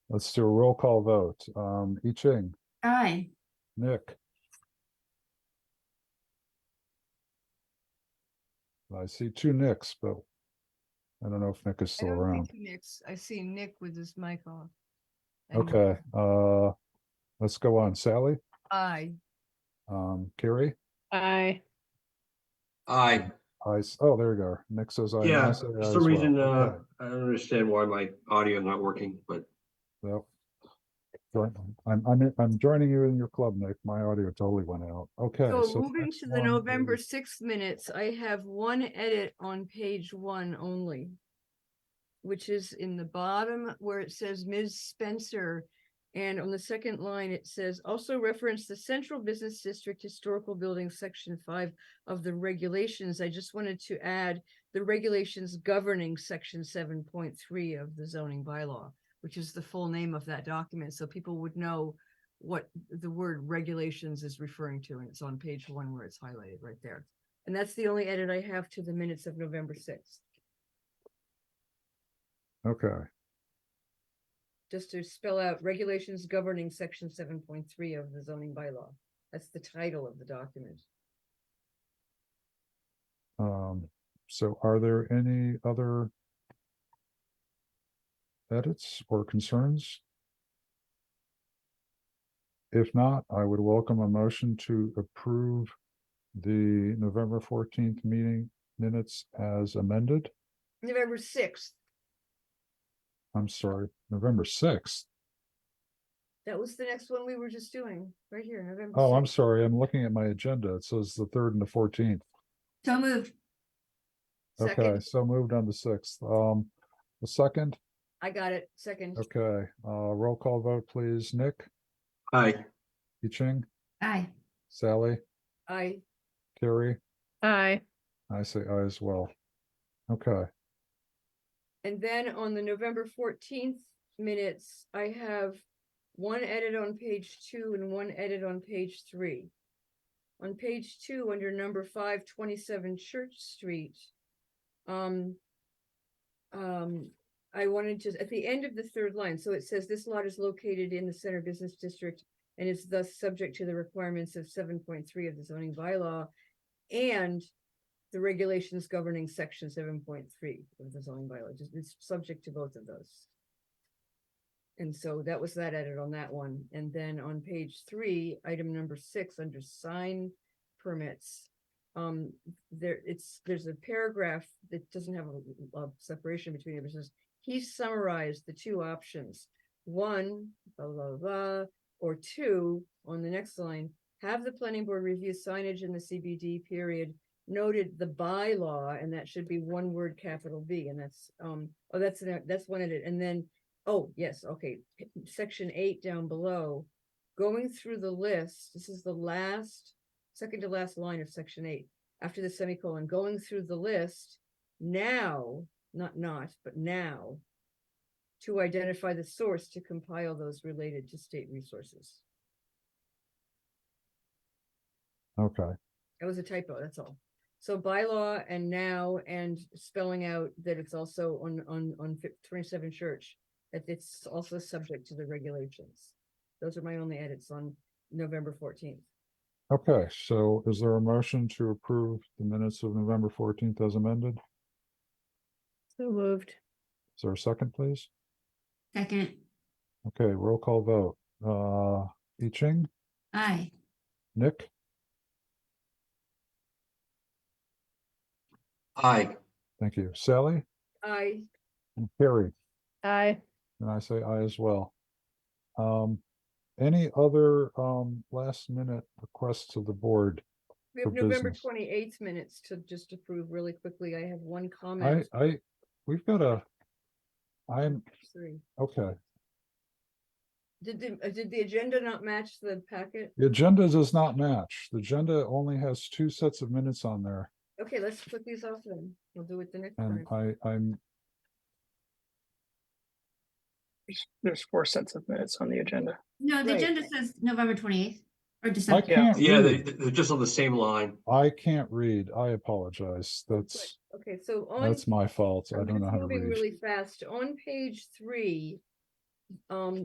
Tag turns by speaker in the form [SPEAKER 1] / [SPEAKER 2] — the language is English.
[SPEAKER 1] Let's do a roll call vote. Um, I Ching,
[SPEAKER 2] Aye.
[SPEAKER 1] Nick. I see two Nicks, but I don't know if Nick is
[SPEAKER 3] I
[SPEAKER 1] still
[SPEAKER 3] don't
[SPEAKER 1] around.
[SPEAKER 3] think Nick's, I see Nick with his mic off. And
[SPEAKER 1] Okay, uh, let's go on. Sally,
[SPEAKER 3] I,
[SPEAKER 1] um, Carrie,
[SPEAKER 4] Aye.
[SPEAKER 5] Aye,
[SPEAKER 1] I, s- oh, there you go. Nick says I.
[SPEAKER 6] Yeah, for some reason, uh, I don't understand why my audio not working, but
[SPEAKER 1] Yep. Join- I'm, I'm, I'm joining you in your club, Nick. My audio totally went out. Okay.
[SPEAKER 3] so
[SPEAKER 1] the
[SPEAKER 3] moving
[SPEAKER 1] next
[SPEAKER 3] to the
[SPEAKER 1] one
[SPEAKER 3] November
[SPEAKER 1] is-
[SPEAKER 3] sixth minutes, I have one edit on page one only. Which is in the bottom where it says Ms. Spencer. And on the second line, it says also reference the Central Business District Historical Building Section five of the regulations. I just wanted to add the regulations governing section seven point three of the zoning bylaw, which is the full name of that document, so people would know what the word regulations is referring to, and it's on page one where it's highlighted right there. And that's the only edit I have to the minutes of November sixth,
[SPEAKER 1] Okay,
[SPEAKER 3] just to spell out regulations governing section seven point three of the zoning bylaw. That's the title of the document.
[SPEAKER 1] um, so are there any other edits or concerns? If not, I would welcome a motion to approve the November fourteenth meeting minutes as amended.
[SPEAKER 3] November sixth,
[SPEAKER 1] I'm sorry, November sixth.
[SPEAKER 3] that was the next one we were just doing, right here, November.
[SPEAKER 1] Oh, I'm
[SPEAKER 3] 6th.
[SPEAKER 1] sorry. I'm looking at my agenda. It says the third and the fourteenth.
[SPEAKER 2] So moved.
[SPEAKER 1] Okay,
[SPEAKER 3] Second,
[SPEAKER 1] so moved on the sixth. Um, the second,
[SPEAKER 3] I got it, second,
[SPEAKER 1] okay, uh, roll call vote, please. Nick,
[SPEAKER 6] I,
[SPEAKER 1] Yi Ching,
[SPEAKER 2] Aye.
[SPEAKER 1] Sally,
[SPEAKER 3] I.
[SPEAKER 1] Carrie,
[SPEAKER 4] Aye.
[SPEAKER 1] I say I as well. Okay,
[SPEAKER 3] And then on the November fourteenth minutes, I have one edit on page two and one edit on page three. On page two, under number five twenty-seven Church Street, um, um, I wanted to, at the end of the third line, so it says this lot is located in the Center Business District and is thus subject to the requirements of seven point three of the zoning bylaw and the regulations governing section seven point three of the zoning bylaw, just, it's subject to both of those. And so that was that edit on that one, and then on page three, item number six, under sign permits. Um, there, it's, there's a paragraph that doesn't have a, a separation between it, but it says, he summarized the two options. One, blah, blah, blah, blah, or two, on the next line, have the planning board review signage in the CBD period noted the bylaw, and that should be one word capital B, and that's, um, oh, that's, an- that's one edit, and then, oh, yes, okay, p- section eight down below, going through the list, this is the last, second to last line of section eight, after the semicolon, going through the list, now, not not, but now, to identify the source to compile those related to state resources.
[SPEAKER 1] okay,
[SPEAKER 3] That was a typo, that's all. So bylaw and now and spelling out that it's also on, on, on fif- twenty-seven church, that it's also subject to the regulations. Those are my only edits on November fourteenth.
[SPEAKER 1] okay. So is there a motion to approve the minutes of November fourteenth as amended?
[SPEAKER 4] So moved.
[SPEAKER 1] Is there a second, please?
[SPEAKER 2] Second.
[SPEAKER 1] Okay, roll call vote. Uh, Yi Ching,
[SPEAKER 2] Aye.
[SPEAKER 1] Nick,
[SPEAKER 6] I,
[SPEAKER 1] thank you. Sally,
[SPEAKER 3] I,
[SPEAKER 1] and Carrie.
[SPEAKER 4] Aye.
[SPEAKER 1] And I say I as well. Um, any other, um, last minute requests of the board?
[SPEAKER 3] we have
[SPEAKER 1] For
[SPEAKER 3] November
[SPEAKER 1] business.
[SPEAKER 3] twenty-eighth minutes to just approve really quickly. I have one
[SPEAKER 1] I,
[SPEAKER 3] comment.
[SPEAKER 1] I, we've got a, I'm,
[SPEAKER 3] Three.
[SPEAKER 1] okay,
[SPEAKER 3] Did, the- uh, did the agenda not match the packet?
[SPEAKER 1] the agenda does not match. The agenda only has two sets of minutes on there
[SPEAKER 3] Okay, let's put these off then. We'll do it the next
[SPEAKER 1] and
[SPEAKER 3] time.
[SPEAKER 1] Um, I, I'm,
[SPEAKER 7] There's four sets of minutes on the agenda.
[SPEAKER 2] No, the
[SPEAKER 3] Right.
[SPEAKER 2] agenda says November twenty-eighth or
[SPEAKER 1] I
[SPEAKER 2] December.
[SPEAKER 1] can't
[SPEAKER 6] yeah, they,
[SPEAKER 1] read.
[SPEAKER 6] they're just on the same line.
[SPEAKER 1] I can't read. I apologize. That's,
[SPEAKER 3] Okay, so on.
[SPEAKER 1] that's my fault. I
[SPEAKER 3] I'm
[SPEAKER 1] don't
[SPEAKER 3] just
[SPEAKER 1] know how to
[SPEAKER 3] moving
[SPEAKER 1] read.
[SPEAKER 3] Really fast, on page three, um,